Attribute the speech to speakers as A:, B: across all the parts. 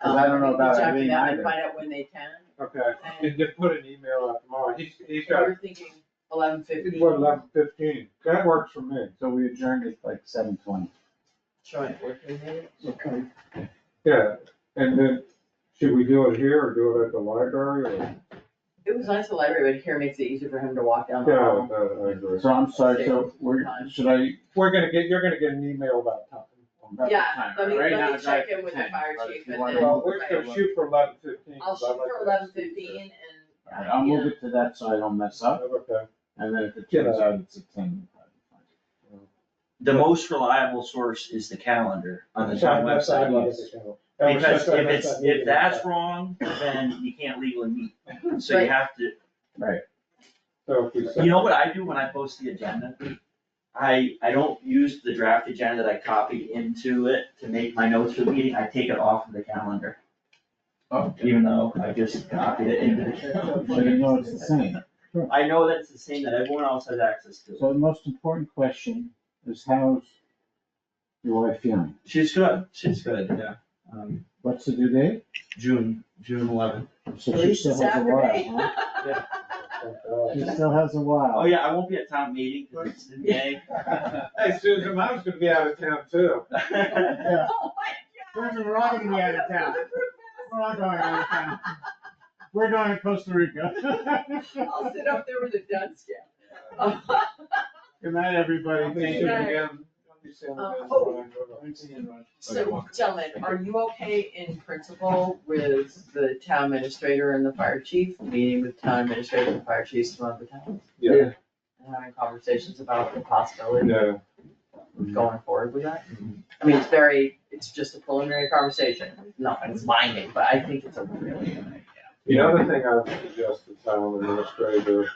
A: 'Cause I don't know
B: um,
A: about
B: reach out to
A: Irene
B: them and
A: either.
B: Find out when they can,
C: Okay,
B: and
C: and just put an email out tomorrow, he's, he's got,
B: we're thinking eleven fifty.
C: he's what, eleven fifteen, that works for me.
A: So we adjourned at like seven twenty.
B: Sure, working day.
C: Okay. Yeah, and then, should we do it here or do it at the library or?
B: It was nice to library, but here makes it easier for him to walk down the
C: Yeah,
B: hall.
C: I- I agree.
A: So I'm sorry, so we're, should I?
C: We're gonna get, you're gonna get an email about time.
A: about the
B: Yeah,
A: time,
B: let me-
A: right
B: let
A: now
B: me
A: it's
B: check
A: like
B: in with the
A: 10,
B: fire
A: but if
B: chief
A: you
B: and
A: wanna-
B: then-
C: Well, we're gonna shoot for eleven fifteen.
B: I'll shoot for eleven fifteen and. uh,
A: Alright, I'll move it to that so I don't mess up,
C: Okay,
A: and then if it
C: Yeah.
A: turns out it's a ten.
D: The most reliable source is the calendar on the town website. Because if it's, if that's wrong, then you can't legally meet, so you
B: Right.
D: have to,
C: So if we set-
D: you know what I do when I post the agenda? I, I don't use the draft agenda that I copied into it to make my notes for the meeting, I take it off of the calendar, even though I just copied it into the calendar.
A: So you know it's the same.
D: I know that's the same that everyone else has access to.
A: So the most important question is how's your wife feeling?
D: She's good, she's good, yeah. Um,
A: What's the due date?
D: June, June eleventh.
A: So she still has a while, huh? She still has a
D: Oh,
A: while.
D: yeah, I won't be at town meeting, 'cause it's in May.
C: uh, Hey Susan, I was gonna be out of town too.
A: Yeah.
B: Oh my
A: Susan, we're all gonna be out of town. We're all going out of town. We're going to Costa Rica.
B: I'll sit up there with a dunce cap.
A: Good night,
C: I'll
A: everybody.
C: be
A: Thank
C: shooting
A: you.
C: again. I'll be seeing
B: Uh,
C: you guys
B: oh.
C: when I go to-
B: So gentlemen, are you okay in principle with the town administrator and the fire chief, meeting with town administrator and fire chiefs from other towns?
C: Yeah,
B: And having conversations about the possibility
C: yeah,
E: Mm-hmm.
B: of going forward with that? I mean, it's very, it's just a preliminary conversation, nothing's binding, but I think it's a really good idea.
C: the other thing I would suggest the town administrator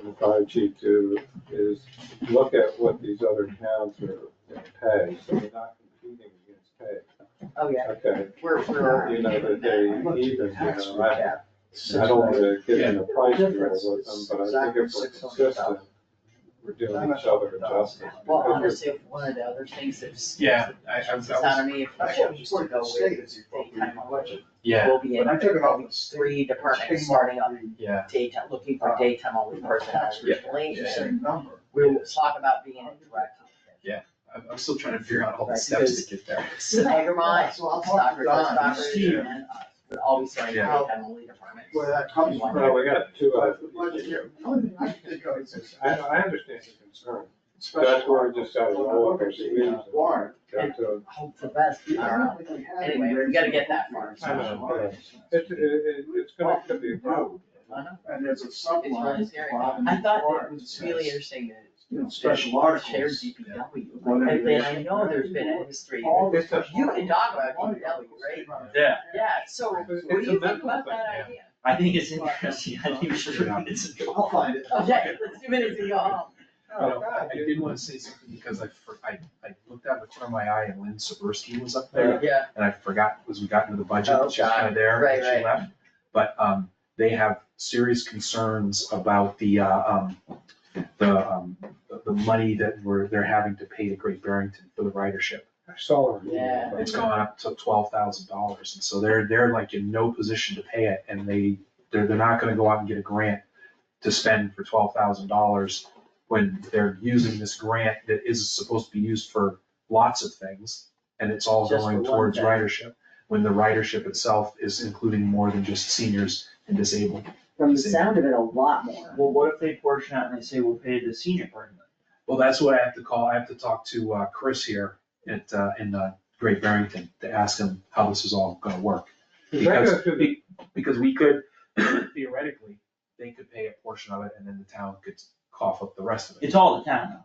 C: and the fire chief do is look at what these other towns are gonna pay, so they're not competing against pay.
B: Oh, yeah,
C: Okay,
B: we're, we're.
C: you know, that they even, you
A: Tax
C: know, I-
A: recap.
C: I don't wanna get in a price war
A: Difference
C: with them,
A: is
C: but I think
A: exactly
C: if we're
A: 600,000.
C: consistent, we're doing each other a justice.
B: Well,
C: because
B: honestly, if one of the other things that's.
E: Yeah, I, I
B: It's not
E: was,
B: on me if
E: I
B: I
E: should
B: should go with the state time on budget.
E: yeah,
B: We'll be in
E: but I took it off.
B: three departments starting on
E: yeah,
B: daytime, looking for daytime only personnel
E: Yeah.
B: recently.
E: Uh, Yeah.
B: and
E: number.
B: We'll talk about being in direct.
E: I'm, I'm still trying to figure out all the
B: Right,
E: steps to get there.
B: Sagamore, Stockbridge, Stockbridge,
E: Steve.
B: and us, would all be starting
E: Yeah.
B: daytime only departments.
E: Where that
B: comes
C: it's- Well, we got two of them. I,
E: from.
C: I understand your concern. That's where we just gotta go up our sleeves. Got to-
B: Hope for the best, I don't know. Anyway, we gotta get that far.
C: I know, It's, it, it- it's gonna to be a problem.
B: I know.
E: And there's a
B: It's really scary. I thought it was really interesting that.
E: Special
B: Shared
E: articles.
B: DPW, and then I know there's been a history,
C: It's a-
B: you can talk about DPW, right?
D: Yeah,
B: Yeah, so what
C: It's-
B: do
C: it's a
B: you think
C: mental
B: about
C: thing.
B: that idea?
D: I think it's interesting, I think we should read it.
E: I'll find it.
B: Okay, let's do minutes and go home.
C: Oh, God,
E: I
C: you-
E: did wanna say something because I, for- I, I looked out of the corner of my eye and Lynn Sabursky was up there.
B: Yeah,
E: and I forgot, as we got into the budget,
B: Oh,
E: she was kind of there,
B: Right,
E: and
B: right.
E: she left. But, um, they have serious concerns about the, uh, um, the, um, the- the money that we're, they're having to pay to Great Barrington for the ridership.
C: I saw her.
B: Yeah.
E: It's gone up to twelve thousand dollars, and so they're, they're like in no position to pay it, and they, they're, they're not gonna go out and get a grant to spend for twelve thousand dollars when they're using this grant that is supposed to be used for lots of things, and it's all
B: Just for
E: going
B: one
E: towards
B: thing.
E: ridership, when the ridership itself is including more than just seniors and disabled.
B: from the sound of it, a lot more.
D: Well, what if they portion out and they say we'll pay the senior part
E: Well, that's what I have to call, I have to talk to, uh, Chris here at, uh, in, uh, Great Barrington to ask him how this is all gonna work.
C: They go
E: Because,
C: through the-
E: be- because we could, theoretically, they could pay a portion of it and then the town could cough up the rest of it.
D: It's all the town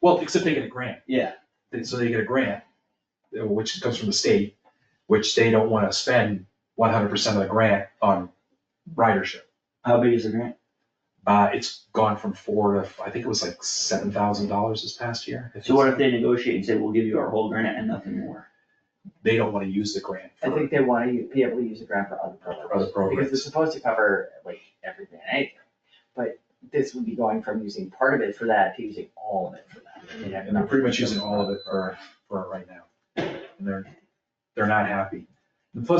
E: Well, except they get a grant,
D: though. Yeah.
E: They- so they get a grant, uh, which comes from the state, which they don't wanna spend one hundred percent of the grant on ridership.
D: How big is the grant?
E: Uh, it's gone from four to, I think it was like seven thousand dollars this past year.
D: So what if they negotiate and say, we'll give you our whole grant and nothing more?
E: They don't wanna use the grant
B: I
E: for
B: think they wanna u- be able to use a grant for other programs.
E: for other
B: Because it's
E: programs.
B: supposed to cover like everything, and anything, but this would be going from using part of it for that to using all of it for that. You'd have
E: And they're pretty much using all of it for, for it right now. And they're, they're not happy. The flip